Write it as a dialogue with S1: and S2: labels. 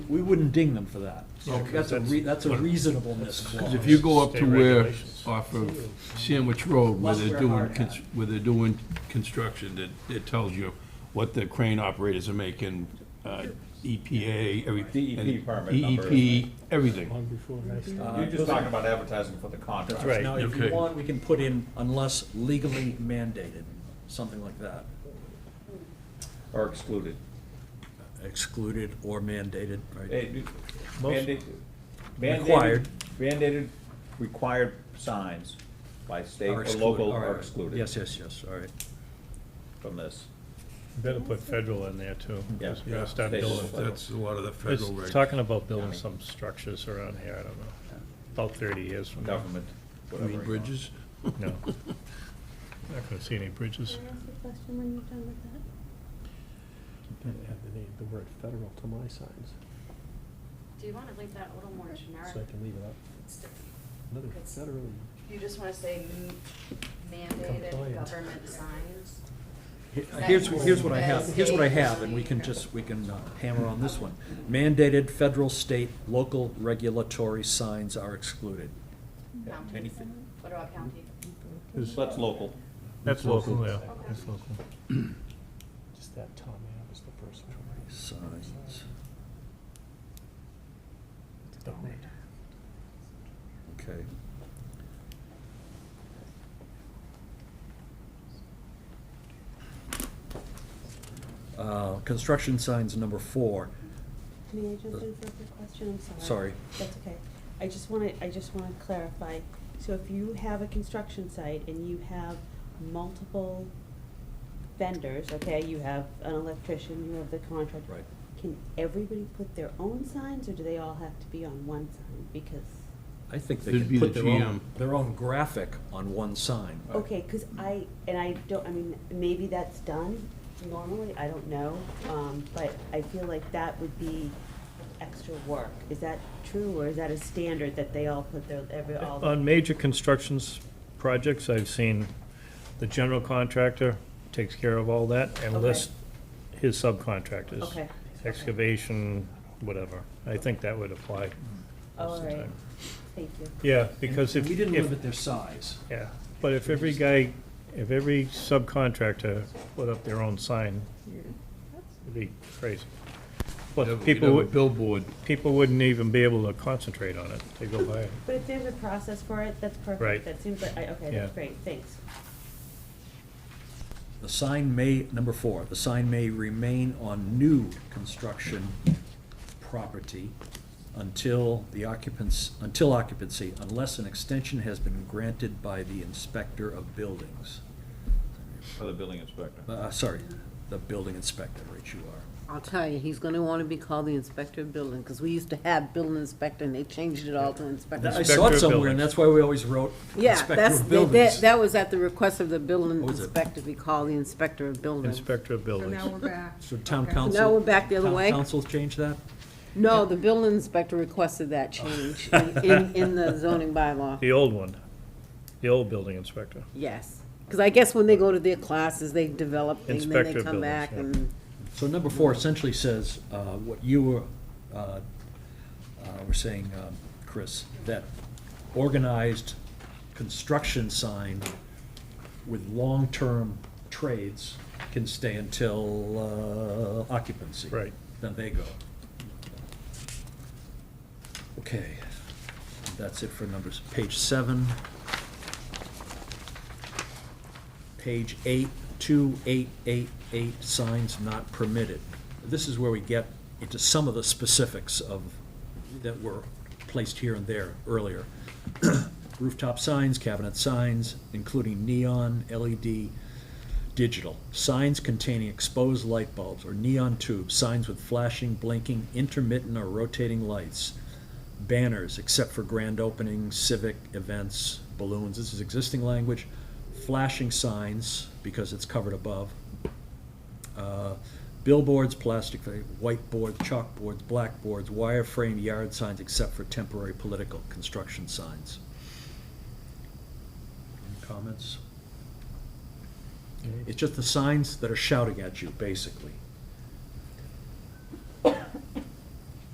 S1: we wouldn't ding them for that. So
S2: Yeah, 'cause
S1: That's a,
S2: that's-
S1: re- that's a
S2: what-
S1: reasonableness
S2: that's-
S1: clause.
S3: If you go up to
S2: State
S3: where,
S2: regulations.
S3: off of Sandwich Road, where
S1: Plus
S3: they're
S1: we're
S3: doing,
S1: hard
S3: cons-
S1: hat.
S3: where they're doing construction, that, it tells you what the crane operators are making, uh, EPA, every.
S4: DEP
S2: E
S3: and
S4: permit number,
S3: DEP, everything.
S2: Long before I started.
S4: You're just talking about advertising for the contract.
S2: That's right.
S1: Now, if you
S3: okay.
S1: want, we can put in unless legally mandated, something like that,
S4: Or excluded.
S1: excluded or mandated, right?
S4: They-
S2: Most-
S4: mandate- mandated-
S1: Required.
S4: Mandated, required signs by state
S1: Are
S4: or
S1: excluded,
S4: local
S1: all right,
S4: are
S1: right.
S4: excluded.
S1: Yes, yes, yes, all right.
S4: From this.
S2: Better put federal in there too. 'cause
S4: Yeah.
S2: You gotta start
S4: Yeah.
S2: building.
S3: That's a lot of the federal
S2: It's
S3: regs.
S2: talking about building some structures around here, I don't know, about thirty years from now.
S4: Government, whatever.
S3: Green
S4: you want.
S3: bridges,
S2: No. Not gonna see any bridges.
S5: Can I ask a question when you're done with that?
S6: Better add the name, the word federal to my signs,
S7: Do you wanna leave that a little more generic?
S6: so I can leave it up.
S7: It's-
S6: Another
S7: It's-
S6: federally,
S7: You just wanna say m- mandated
S6: Compliant.
S7: government signs?
S1: Here's, here's what I have, here's what I have, and we can just, we can uh, hammer on this one. Mandated federal, state, local regulatory signs are excluded.
S7: County?
S1: Anything.
S7: What about county?
S4: So That's local.
S2: That's local, yeah, that's local.
S6: just that Tom Ave was the first one.
S1: Signs,
S6: The word.
S1: okay. Uh, Construction signs, number four.
S5: May I jump in for a quick question? I'm sorry.
S1: Sorry.
S5: That's okay. I just wanna, I just wanna clarify. So if you have a construction site and you have multiple vendors, okay, you have an electrician, you have the contractor.
S1: Right.
S5: Can everybody put their own signs or do they all have to be on one sign? Because,
S1: I think they
S3: It'd
S1: can
S3: be
S1: put
S3: the
S1: their own,
S3: GM.
S1: their own graphic on one sign.
S5: okay, cause I, and I don't, I mean, maybe that's done normally, I don't know. Um, but I feel like that would be extra work. Is that true or is that a standard that they all put their, every, all?
S2: On major constructions projects, I've seen the general contractor takes care of all that and
S5: Okay.
S2: lists his subcontractors.
S5: Okay.
S2: Excavation, whatever. I think that would apply. most
S5: All
S2: of the
S5: right,
S2: time.
S5: thank you.
S2: Yeah, because
S1: And
S2: if.
S1: We didn't
S2: if-
S1: limit their size.
S2: Yeah, but if every guy, if every subcontractor put up their own sign, it'd be crazy.
S3: Have-
S2: But
S3: we'd
S2: people,
S3: have a
S2: would-
S3: Billboard,
S2: people wouldn't even be able to concentrate on it, they go by it.
S5: But if there's a process for it, that's perfect.
S2: Right.
S5: That seems like, I- okay,
S2: Yeah.
S5: that's great, thanks.
S1: The sign may, number four, the sign may remain on new construction property until the occupants, until occupancy, unless an extension has been granted by the inspector of buildings.
S4: For the building inspector.
S1: Uh, sorry, the building inspector, right, you are.
S8: I'll tell you, he's gonna wanna be called the inspector of building, because we used to have building inspector, and they changed it all to
S1: I
S8: inspector. of-
S1: saw
S2: Inspector
S1: it
S2: of
S1: somewhere, and
S2: buildings.
S1: that's why we always wrote
S8: Yeah,
S1: inspector
S8: that's,
S1: of
S8: that,
S1: buildings.
S8: that- that was at the request of the building
S1: What was it?
S8: inspector, be called the inspector of building.
S2: Inspector of buildings.
S9: So now we're back.
S1: So town
S9: Okay.
S1: council.
S8: Now we're back the other
S1: town
S8: way.
S1: council changed that?
S8: No, the building inspector requested that change in- in, in the zoning bylaw,
S2: The old one, the old building inspector.
S8: yes. Because I guess when they go to their classes, they develop things, then
S2: Inspector
S8: they
S2: of
S8: come
S2: buildings,
S8: back
S2: yeah.
S8: and.
S1: So number four essentially says, uh, what you were, uh, uh, were saying, um, Chris, that organized construction sign with long-term trades can stay until, uh, occupancy.
S2: Right.
S1: Then they go. Okay, that's it for numbers. Page seven. Page eight, two, eight, eight, eight, signs not permitted. This is where we get into some of the specifics of, that were placed here and there earlier. Rooftop signs, cabinet signs, including neon, E LED, digital. Signs containing exposed light bulbs or neon tubes, signs with flashing, blinking, intermittent or rotating lights. Banners, except for grand openings, civic events, balloons, this is existing language. Flashing signs, because it's covered above. Uh, Billboards, plastic, whiteboards, chalkboards, blackboards, wireframe yard signs, except for temporary political construction signs. Any Comments? It's just the signs that are shouting at you, basically.